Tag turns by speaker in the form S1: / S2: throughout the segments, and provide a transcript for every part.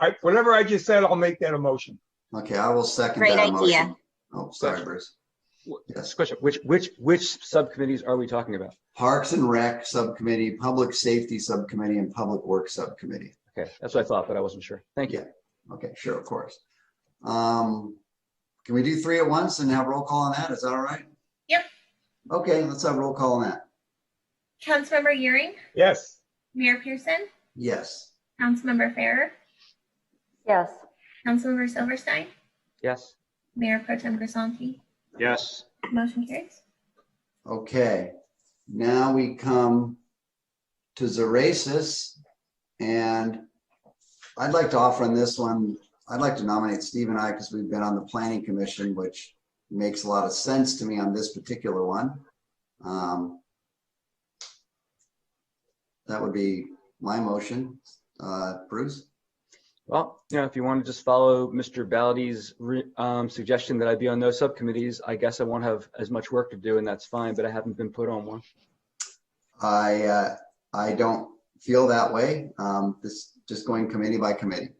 S1: I, whatever I just said, I'll make that a motion.
S2: Okay, I will second
S3: Great
S2: that
S3: idea.
S2: motion. Oh, sorry,
S4: Gotcha.
S2: Bruce. Yes,
S4: Question, which, which, which subcommittees are we talking about?
S2: Parks and Rec Subcommittee, Public Safety Subcommittee, and Public Works Subcommittee.
S4: Okay, that's what I thought, but I wasn't sure. Thank you.
S2: Okay, sure, of course. Um, Can we do three at once and have roll call on that? Is that all right?
S5: Yep.
S2: Okay, let's have roll call on that.
S5: Councilmember Euring,
S1: Yes,
S5: Mayor Pearson,
S2: Yes.
S5: Councilmember Farrer,
S6: yes,
S5: Councilmember Silverstein,
S4: Yes?
S5: Mayor Pro Tem Grisanti.
S4: Yes.
S5: Motion carries.
S2: Okay, now we come to Zeracis. And I'd like to offer on this one, I'd like to nominate Steve and I because we've been on the planning commission, which makes a lot of sense to me on this particular one. Um, That would be my motion. Uh, Bruce?
S4: Well, you know, if you want to just follow Mr. Baladi's re- um, suggestion that I be on those subcommittees, I guess I won't have as much work to do and that's fine, but I haven't been put on one.
S2: I, uh, I don't feel that way. Um, This, just going committee by committee.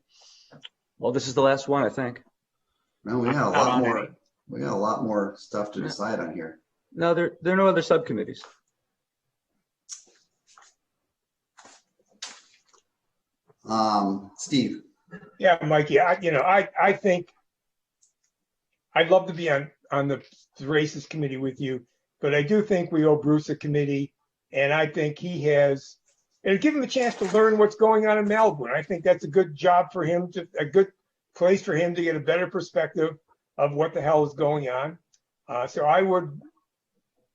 S4: Well, this is the last one, I think.
S2: No, we got a
S1: Not
S2: lot
S1: on
S2: more,
S1: any.
S2: we got a lot more stuff to
S4: Yeah.
S2: decide on here.
S4: No, there, there are no other subcommittees.
S2: Um, Steve,
S1: yeah, Mikey, I, you know, I, I think I'd love to be on, on the races committee with you, but I do think we owe Bruce a committee. And I think he has, and give him a chance to learn what's going on in Malibu. And I think that's a good job for him to, a good place for him to get a better perspective of what the hell is going on. Uh, so I would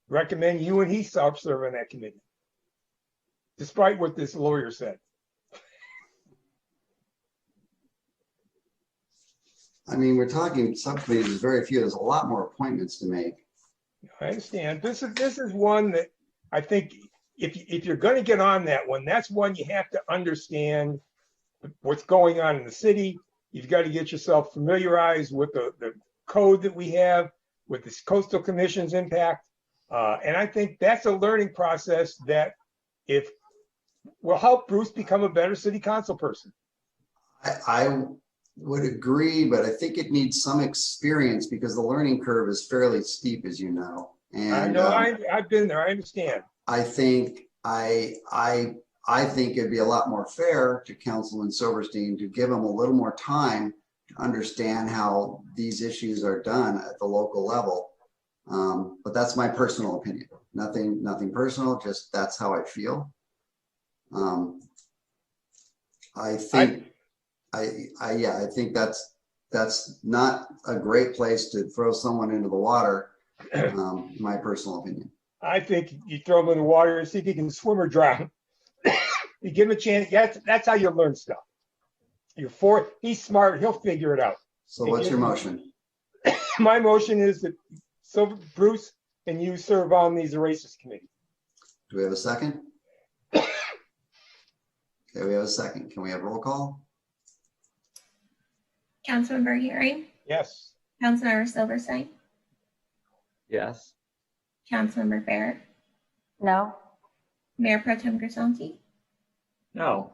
S1: recommend you and he self-serve on that committee. Despite what this lawyer said.
S2: I mean, we're talking subcommittees, there's very few, there's a lot more appointments to make.
S1: I understand. This is, this is one that I think if, you- if you're gonna get on that one, that's one you have to understand what's going on in the city. You've got to get yourself familiarized with the, the code that we have, with this coastal commission's impact. Uh, and I think that's a learning process that if, will help Bruce become a better city council person.
S2: I, I would agree, but I think it needs some experience because the learning curve is fairly steep, as you know.
S1: I
S2: And,
S1: know, I,
S2: um,
S1: I've been there, I understand.
S2: I think, I, I, I think it'd be a lot more fair to Councilman Silverstein to give him a little more time to understand how these issues are done at the local level. Um, but that's my personal opinion. Nothing, nothing personal, just that's how I feel. Um, I think, I, I, yeah, I think that's, that's not a great place to throw someone into the water, um, my personal opinion.
S1: I think you throw him in the water and see if he can swim or drown. you give him a chance. That's that's how you learn stuff. You're for he's smart. He'll figure it out.
S2: So what's your motion?
S1: My motion is that so Bruce and you serve on these erasers committee.
S2: Do we have a second? Okay, we have a second. Can we have roll call?
S5: Councilmember Euring,
S1: Yes.
S5: Councilmember Silverstein,
S4: Yes?
S5: Councilmember Farrer,
S6: no,
S5: Mayor Pro Tem Grisanti,
S4: No.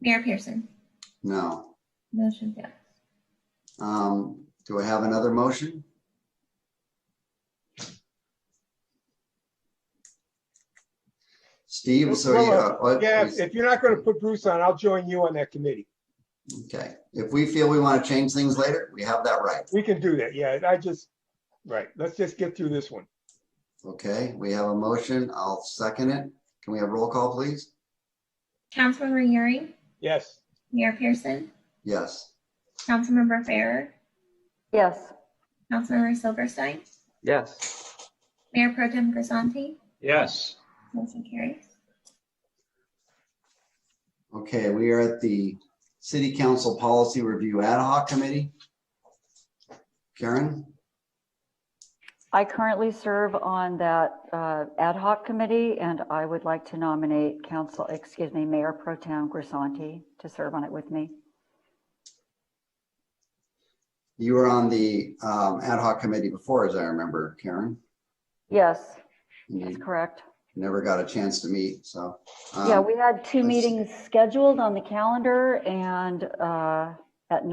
S5: Mayor Pearson.
S2: No.
S5: Motion fails.
S2: Um, do I have another motion? Steve, so you, uh, what-
S1: Yeah. If, if you're not going to put Bruce on, I'll join you on that committee.
S2: okay, if we feel we want to change things later, we have that right.
S1: We can do that. Yeah. I just right. Let's just get through this one.
S2: Okay, we have a motion. I'll second it. Can we have roll call, please?
S5: Councilmember Euring,
S1: Yes.
S5: Mayor Pearson,
S2: Yes.
S5: Councilmember Farrer,
S6: yes,
S5: Councilmember Silverstein,
S4: Yes?
S5: Mayor Pro Tem Grisanti.
S4: Yes.
S5: Motion carries.
S2: Okay, we are at the City Council Policy Review Ad Hoc Committee. Karen?
S6: I currently serve on that uh, ad hoc committee, and I would like to nominate council, excuse me, Mayor Pro Tem Grisanti to serve on it with me.
S2: You were on the um, ad hoc committee before, as I remember, Karen.
S6: Yes,
S2: And
S6: that's
S2: you-
S6: correct.
S2: never got a chance to meet, so. um,
S6: Yeah, we had two
S2: let's-
S6: meetings scheduled on the calendar and uh,